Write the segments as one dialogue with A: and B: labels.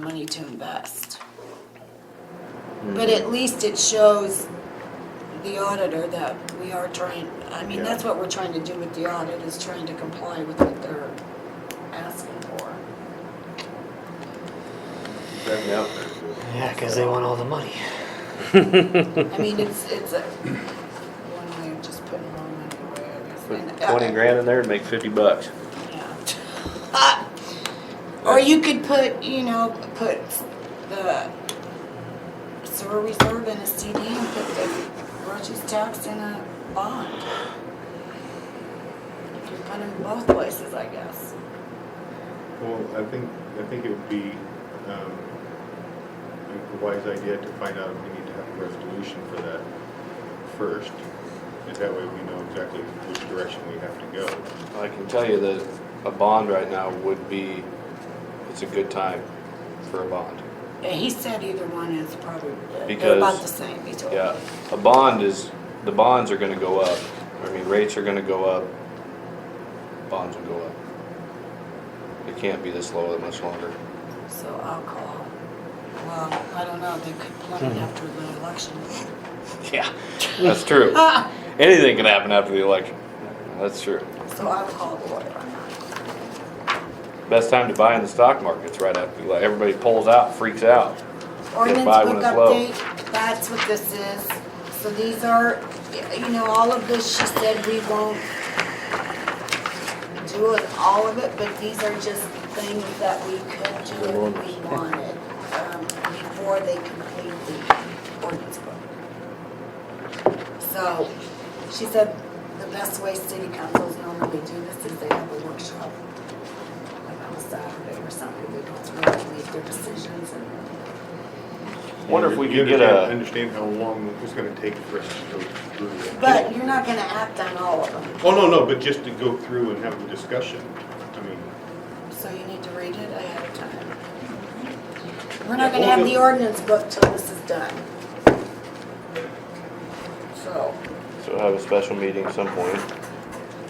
A: money to invest. But at least it shows the auditor that we are trying, I mean,
B: Yeah.
A: that's what we're trying to do with the audit, is trying to comply with what they're asking for.
B: Definitely out there.
C: Yeah, because they want all the money.
A: I mean, it's, it's a, one way of just putting more money away, I guess.
D: Put
A: And, uh,
D: Twenty grand in there and make fifty bucks.
A: Yeah. Uh, Or you could put, you know, put the sewer reserve in a CD and put the groceries tax in a bond. You can put them both places, I guess.
B: Well, I think, I think it would be um, a wise idea to find out if we need to have a resolution for that first. And that way we know exactly which direction we have to go.
D: I can tell you that a bond right now would be, it's a good time for a bond.
A: And he said either one is probably, they're about
D: Because-
A: the same, he told me.
D: Yeah, a bond is, the bonds are gonna go up. I mean, rates are gonna go up. Bonds will go up. It can't be this low that much longer.
A: So alcohol, well, I don't know, they could plummet after the election.
D: Yeah, that's true.
A: Ah,
D: Anything can happen after the election. That's true.
A: So alcohol, whatever.
D: Best time to buy in the stock market's right after the election. Everybody pulls out, freaks out.
A: Ordinance
D: Buy when
A: book
D: it's low.
A: update, that's what this is. So these are, you know, all of this, she said we won't do it, all of it, but these are just things that we could do if we wanted, um, before they complete the ordinance book. So, she said the best way city councils normally do this is they have a workshop, like on a Saturday or something, we don't really make their decisions and
D: Wonder if we
B: You
D: could get
B: understand-
D: a,
B: Understand how long it's gonna take for us to go through. it.
A: But you're not gonna act on all of them,
B: Oh, no, no, but just to go through and have the discussion. I mean,
A: so you need to read it ahead of time. We're not gonna have the ordinance book till this is done. So,
D: so have a special meeting some point.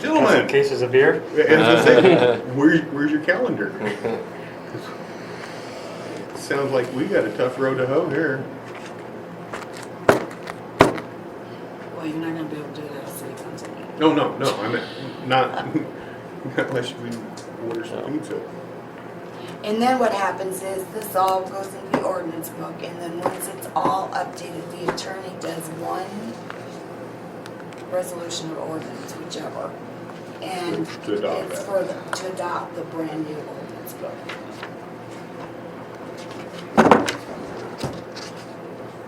B: gentlemen, as
C: Cases of beer?
B: I say, where, where's your calendar? Sounds like we got a tough road to hoe here.
A: well, you're not gonna be able to do that if city council meeting.
B: No, no, no, I meant,
A: Uh.
B: not, unless we order some pizza.
A: And then what happens is this all goes in the ordinance book and then once it's all updated, the attorney does one resolution or ordinance, whichever. And
B: To adopt
A: it's
B: that.
A: for, the- to adopt the brand new ordinance book.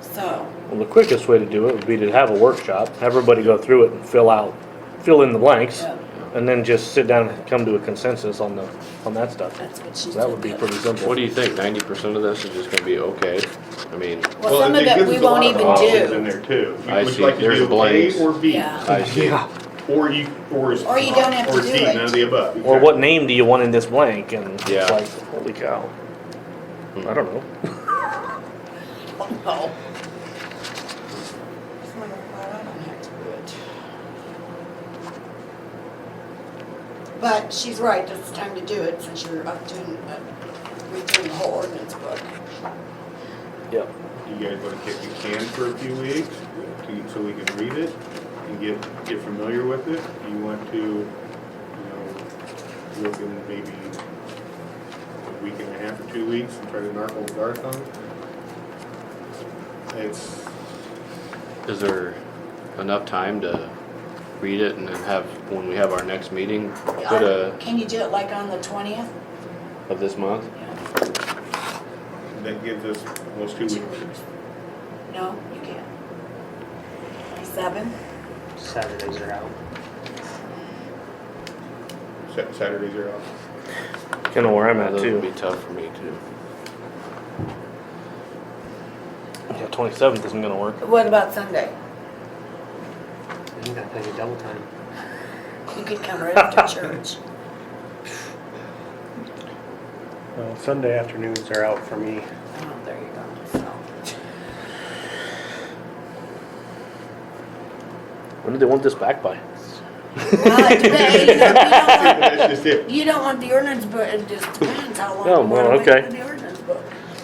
A: So,
E: Well, the quickest way to do it would be to have a workshop, have everybody go through it and fill out, fill in the blanks,
A: Yeah.
E: and then just sit down and come to a consensus on the, on that stuff.
A: that's what she said.
E: That would be pretty simple.
D: What do you think? Ninety percent of this is just gonna be okay? I mean,
A: Well, some of
B: it
A: it
B: gives
A: we
B: us a
A: won't
B: lot of
A: even
B: options In
A: do,
B: there too. You
D: I
B: would
D: see.
B: like to
D: There's
B: do
D: blanks.
B: A or B.
A: Yeah.
D: I see.
B: Or you, or is.
A: Or you don't have to
B: or
A: do
B: C,
A: it.
B: None of the above.
E: Or what name do you want in this blank? And
D: Yeah. Hmm.
E: it's like, holy cow. I don't know.
A: no. Well, I don't have to do it. But she's right, it's time to do it since you're up doing, uh, redoing the whole ordinance book.
E: Yep.
B: Exactly. You guys wanna kick the can for a few weeks to, so we can read it and get, get familiar with it? Do you want to, you know, look in maybe a week and a half or two weeks and try to narco Garth on it? It's,
D: is there enough time to read it and then have, when we have our next meeting, put a,
A: Uh, Can you do it like on the twentieth?
D: of this month?
B: that gives us almost two
A: Two
B: weeks.
A: weeks. No, you can't. Twenty-seven?
C: Saturdays are out.
B: Sa- Saturdays are off.
E: Kind of where I'm at
D: That would be
E: too.
D: tough for me too.
E: Yeah, twenty-seventh isn't gonna work.
A: What about Sunday?
C: You gotta pay the double time.
A: You could come right after church.
F: Well, Sunday afternoons are out for me.
A: Oh, there you go, so.
E: When do they want this back by?
A: Well, it depends. You don't want-
B: That's just it.
A: You don't want the ordinance, but it just depends how long.
E: Oh,
A: what
E: well,
A: are we gonna
E: okay.
A: do?